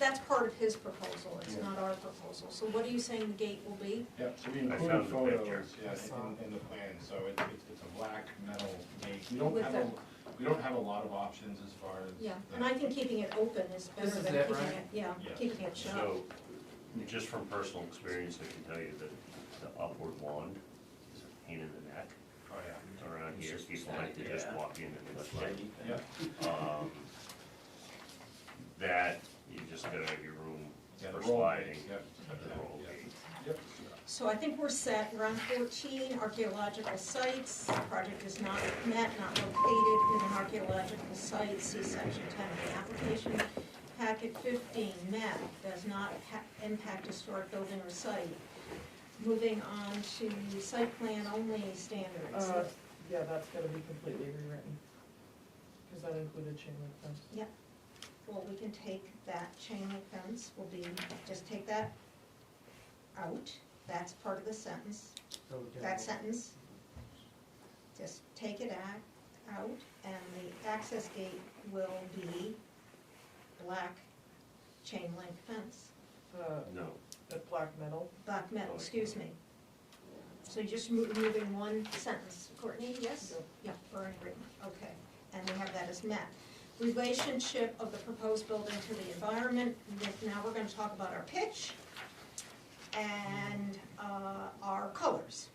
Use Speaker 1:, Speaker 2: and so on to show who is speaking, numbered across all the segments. Speaker 1: that's part of his proposal, it's
Speaker 2: Yeah.
Speaker 1: not our proposal. So what are you saying the gate will be?
Speaker 2: Yep, so we
Speaker 3: I
Speaker 2: included
Speaker 3: found the
Speaker 2: photos,
Speaker 3: picture.
Speaker 2: yeah, in, in the plan, so it- it's, it's a black metal gate. We don't
Speaker 1: With
Speaker 2: have, a-
Speaker 1: the-
Speaker 2: we don't have a lot of options as far as.
Speaker 1: Yeah,
Speaker 2: the-
Speaker 1: and I think keeping it open is
Speaker 4: This
Speaker 1: better
Speaker 4: is
Speaker 1: than
Speaker 4: it,
Speaker 1: keeping
Speaker 4: right?
Speaker 1: it, yeah,
Speaker 2: Yeah.
Speaker 1: keeping it shut.
Speaker 3: So, just from personal experience, I can tell you that the upward wand is a pain in the neck
Speaker 2: Oh, yeah.
Speaker 3: around here. People like to just walk in and
Speaker 5: That's
Speaker 3: lift
Speaker 5: my
Speaker 3: it.
Speaker 5: thing.
Speaker 2: Yeah,
Speaker 3: Um, That, you just gotta have your room
Speaker 2: yeah, the
Speaker 3: for
Speaker 2: roll
Speaker 3: sliding,
Speaker 2: gate, yep.
Speaker 3: the roll
Speaker 2: Yeah.
Speaker 3: gate.
Speaker 2: Yep.
Speaker 1: So I think we're set, we're on fourteen, archaeological sites, The project is not met, not located in an archaeological site, see section ten of the application. Packet fifteen, met, does not ha- impact historic building or site. Moving on to site plan only standards,
Speaker 6: Uh, yeah, that's gotta be completely rewritten. Cause that included chain link fence.
Speaker 1: well, we can take that chain link fence, will be, just take that out, that's part of the sentence. that sentence. Just take it ac- out, and the access gate will be black chain link fence,
Speaker 6: Uh,
Speaker 3: No,
Speaker 6: that black metal,
Speaker 1: black metal, excuse me. So you're just mo- moving one sentence, Courtney, yes?
Speaker 6: Yep.
Speaker 1: Yeah, we're in agreement, okay, and we have that as met. Relationship of the proposed building to the environment, Nick, now we're gonna talk about our pitch and, uh, our colors.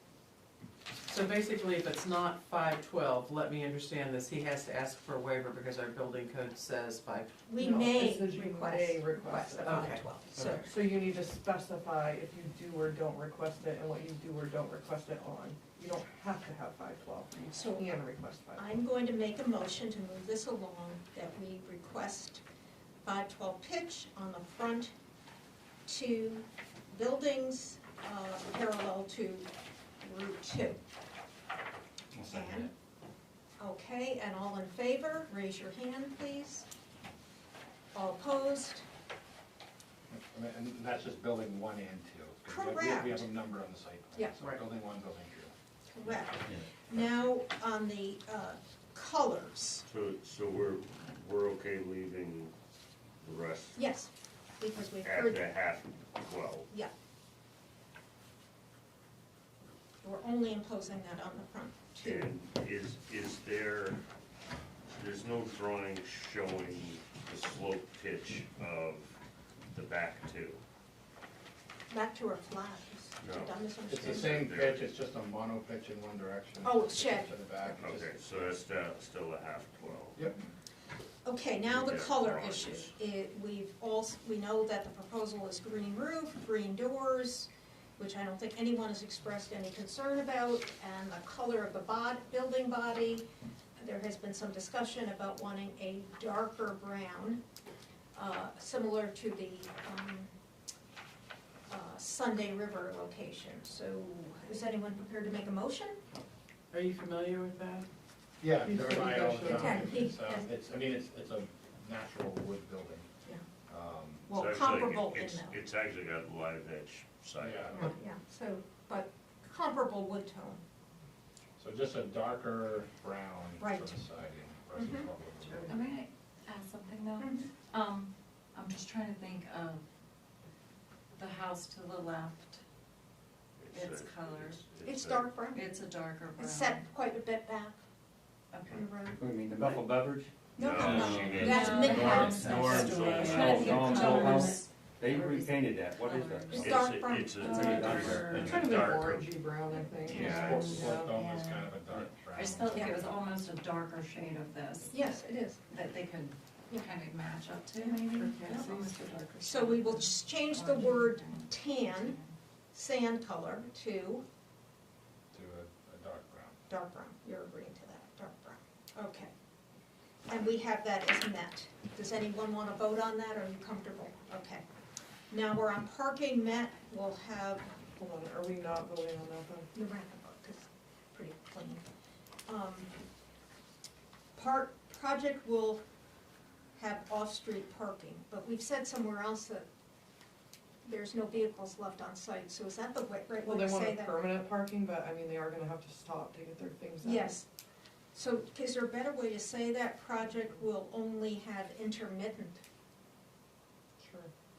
Speaker 4: So basically, if it's not five twelve, let me understand this, he has to ask for a waiver because our building code says five,
Speaker 1: We
Speaker 6: No,
Speaker 1: may
Speaker 6: it says you may
Speaker 1: request, request
Speaker 6: request
Speaker 1: a
Speaker 6: it.
Speaker 1: five
Speaker 4: Okay.
Speaker 1: twelve, so,
Speaker 4: Okay.
Speaker 6: so you need to specify if you do or don't request it and what you do or don't request it on. You don't have to have five twelve,
Speaker 1: So-
Speaker 6: you can request five.
Speaker 1: I'm going to make a motion to move this along, that we request five twelve pitch on the front two buildings, uh, parallel to Route two.
Speaker 2: I'll second
Speaker 1: And, okay, and all in favor, raise your hand, please. All opposed,
Speaker 2: it. And and that's just building one and two. 'cause we have- we have- We have a number on the site plan.
Speaker 1: Yeah.
Speaker 2: So
Speaker 4: Right.
Speaker 2: building one, building two.
Speaker 1: correct. Now, on the, uh, colors,
Speaker 3: so, so we're, we're okay leaving the rest
Speaker 1: yes, because we've
Speaker 3: at
Speaker 1: heard
Speaker 3: the half twelve.
Speaker 1: Yeah. We're only imposing that on the front two.
Speaker 3: And is, is there, there's no drawing showing the slope pitch of the back two?
Speaker 1: Back to our flags. Did
Speaker 3: No.
Speaker 1: I
Speaker 2: It's
Speaker 1: misunderstand?
Speaker 2: the same pitch, it's just a mono pitch in one direction.
Speaker 1: Oh, it's
Speaker 2: just
Speaker 1: shed.
Speaker 2: To the back. it's just-
Speaker 3: Okay, so that's still, still a half twelve.
Speaker 2: Yep,
Speaker 1: Okay, now the
Speaker 3: Yeah,
Speaker 1: color
Speaker 3: orange.
Speaker 1: issue. It, we've all, we know that the proposal is green roof, green doors, which I don't think anyone has expressed any concern about, and the color of the bod, building body. There has been some discussion about wanting a darker brown, uh, similar to the, um, uh, Sunday River location. So is anyone prepared to make a motion?
Speaker 4: are you familiar with that?
Speaker 2: yeah,
Speaker 6: He's
Speaker 2: they're right all the
Speaker 6: pretty
Speaker 2: time.
Speaker 1: good.
Speaker 2: It's, uh, it's, I mean, it's, it's a natural wood building.
Speaker 1: Yeah.
Speaker 2: Um,
Speaker 1: Well,
Speaker 3: It's actually-
Speaker 1: comparable in
Speaker 3: it's-
Speaker 1: though.
Speaker 3: It's actually got live edge side.
Speaker 2: Yeah.
Speaker 1: Yeah, yeah, so, but comparable wood tone.
Speaker 2: So just a darker brown for
Speaker 1: Right.
Speaker 2: the siding. versus
Speaker 1: Mhm.
Speaker 2: what we're doing.
Speaker 7: May I ask something
Speaker 1: Mm-hmm.
Speaker 7: though? Um, I'm just trying to think of the house to the left. It's
Speaker 3: a-
Speaker 7: color.
Speaker 3: it's-
Speaker 1: It's
Speaker 3: a-
Speaker 1: dark brown.
Speaker 7: It's a darker brown.
Speaker 1: It's set quite a bit back
Speaker 7: Okay.
Speaker 1: from the
Speaker 5: Mm-hmm.
Speaker 1: road.
Speaker 5: What do you mean, the Bethel Beverage?
Speaker 1: No, no,
Speaker 3: No,
Speaker 1: no,
Speaker 3: she didn't.
Speaker 1: that's
Speaker 7: No,
Speaker 1: Midhouse.
Speaker 5: Norm's
Speaker 7: Store.
Speaker 3: old
Speaker 7: I'm
Speaker 3: house.
Speaker 7: trying to think of
Speaker 5: Norm's Oh, old
Speaker 7: colors.
Speaker 5: house. They repainted that, what is that?
Speaker 1: It's
Speaker 3: It's,
Speaker 1: dark
Speaker 3: a-
Speaker 1: brown.
Speaker 3: it's a.
Speaker 7: Uh,
Speaker 3: it's a
Speaker 7: darker.
Speaker 6: It's kind of an
Speaker 3: darker-
Speaker 6: orangey brown, I think.
Speaker 3: Yeah,
Speaker 2: Sport-
Speaker 3: it's-
Speaker 6: Yeah.
Speaker 2: Sport dome is kind of a dark brown.
Speaker 7: I just felt like it was almost a darker shade of this.
Speaker 1: Yes, it is.
Speaker 7: That they could
Speaker 1: Yeah.
Speaker 7: kind of match up to maybe.
Speaker 4: Yeah.
Speaker 7: Almost a darker
Speaker 1: So we will
Speaker 7: shade.
Speaker 1: just change the word tan, sand color, to
Speaker 2: To a, a dark brown.
Speaker 1: dark brown. You're agreeing to that, dark brown. Okay. And we have that as met. Does anyone want to vote on that, or are you comfortable? Okay. Now we're on parking met, we'll have
Speaker 6: Hold on, are we not voting on that then?
Speaker 1: The wrap book is pretty clean. Um, Part, project will have off-street parking, but we've said somewhere else that there's no vehicles left on site, so is that the wa- right
Speaker 6: Well,
Speaker 1: way
Speaker 6: they
Speaker 1: to
Speaker 6: want
Speaker 1: say
Speaker 6: a
Speaker 1: that?
Speaker 6: permanent parking, but I mean, they are gonna have to stop to get their things out.
Speaker 1: Yes. So is there a better way to say that project will only have intermittent